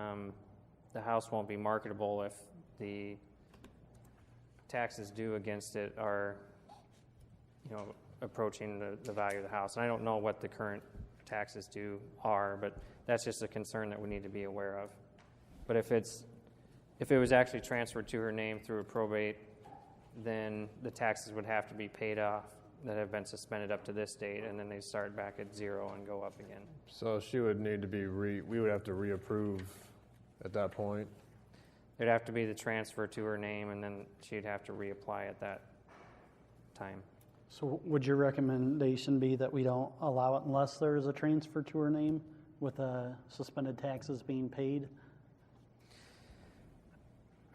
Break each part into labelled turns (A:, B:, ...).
A: Um, the house won't be marketable if the taxes due against it are, you know, approaching the, the value of the house. And I don't know what the current taxes due are, but that's just a concern that we need to be aware of. But if it's, if it was actually transferred to her name through a probate, then the taxes would have to be paid off that have been suspended up to this date, and then they start back at zero and go up again.
B: So she would need to be re, we would have to reapprove at that point.
A: It'd have to be the transfer to her name, and then she'd have to reapply at that time.
C: So would your recommendation be that we don't allow it unless there is a transfer to her name with uh, suspended taxes being paid?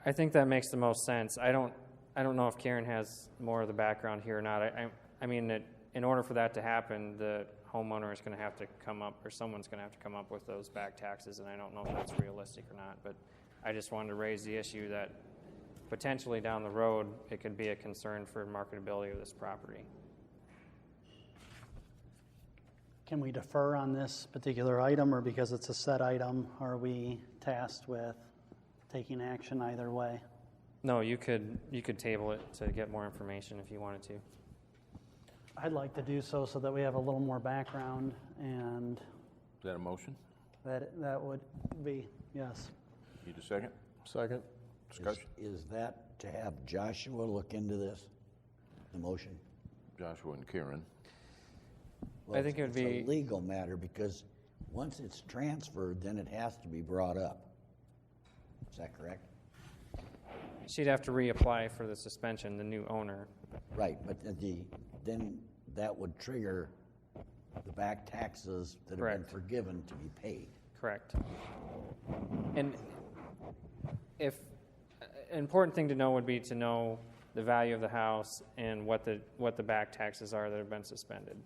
A: I think that makes the most sense. I don't, I don't know if Karen has more of the background here or not. I, I, I mean, that in order for that to happen, the homeowner is going to have to come up, or someone's going to have to come up with those back taxes, and I don't know if that's realistic or not. But I just wanted to raise the issue that potentially down the road, it could be a concern for marketability of this property.
C: Can we defer on this particular item, or because it's a set item, are we tasked with taking action either way?
A: No, you could, you could table it to get more information if you wanted to.
C: I'd like to do so so that we have a little more background, and
D: Is that a motion?
C: that, that would be, yes.
D: Need a second?
B: Second?
E: Is-
D: Discussion?
E: Is that to have Joshua look into this, the motion?
D: Joshua and Karen.
E: Well,
A: think it would
E: it's a
A: be-
E: legal matter, because once it's transferred, then it has to be brought up. Is that correct?
A: She'd have to reapply for the suspension, the new owner.
E: Right, but the- the, then that would trigger the back taxes that have been
A: Correct.
E: forgiven to be paid.
A: Correct. And if, an important thing to know would be to know the value of the house and what the, what the back taxes are that have been suspended.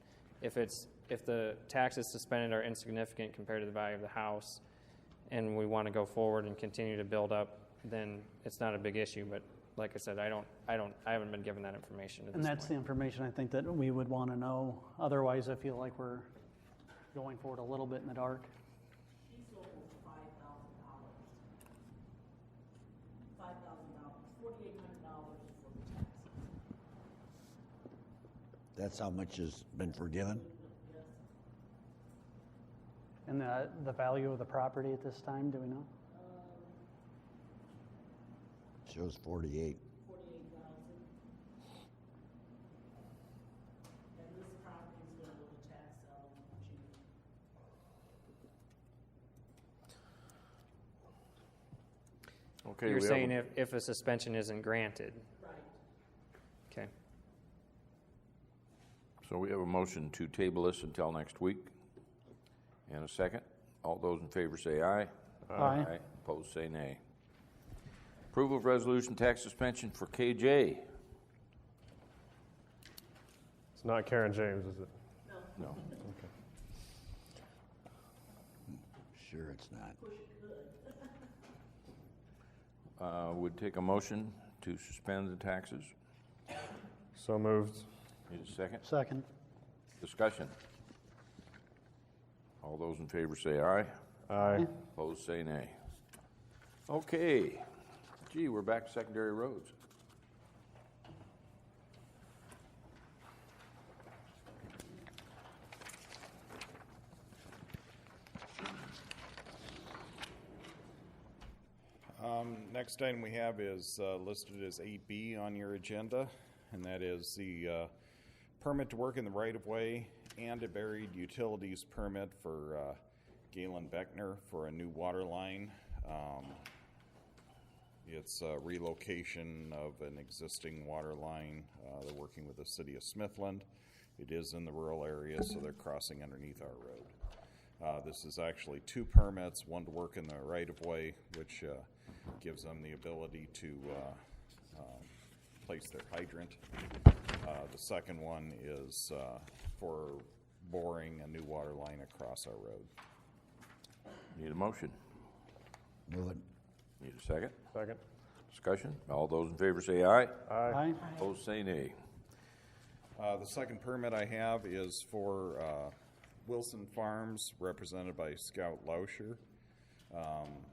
A: If it's, if the taxes suspended are insignificant compared to the value of the house, and we want to go forward and continue to build up, then it's not a big issue, but like I said, I don't, I don't, I haven't been given that information at
C: And
A: this
C: that's the
A: point.
C: information I think that we would want to know. Otherwise, I feel like we're going forward a little bit in the dark.
F: She's over five thousand dollars. Five thousand dollars, forty-eight hundred dollars for the taxes.
E: That's how much has been forgiven?
C: And the, the value of the property at this time, do we know?
E: Shows 48.
F: And this property's gonna go to tax sale in June.
D: Okay.
A: You're
D: we have a-
A: saying if, if a suspension isn't granted,
F: Right.
A: okay?
D: So we have a motion to table this until next week. And a second. All those in favor say aye.
C: Aye.
D: Opposed, say nay. Approval of resolution tax suspension for KJ.
B: It's not Karen James, is it?
D: No.
E: Sure it's not.
D: Uh, Would take a motion to suspend the taxes.
B: So moved.
D: Need a second?
C: Second.
D: Discussion. All those in favor say aye.
B: Aye.
D: Opposed, say nay. Okay. Gee, we're back to secondary roads.
G: Next item we have is uh, listed as 8B on your agenda, and that is the uh, permit to work in the right-of-way and a buried utilities permit for uh, Galen Beckner for a new water line. Um, It's a relocation of an existing water line. Uh, They're working with the city of Smithland. It is in the rural area, so they're crossing underneath our road. Uh, This is actually two permits, one to work in the right-of-way, which uh, gives them the ability to uh, um, place their hydrant. Uh, The second one is uh, for boring a new water line across our road.
D: Need a motion.
E: Move it.
D: Need a second?
B: Second?
D: Discussion? All those in favor say aye.
C: Aye.
D: Opposed, say nay.
G: Uh, The second permit I have is for uh, Wilson Farms, represented by Scout Lauscher. Um,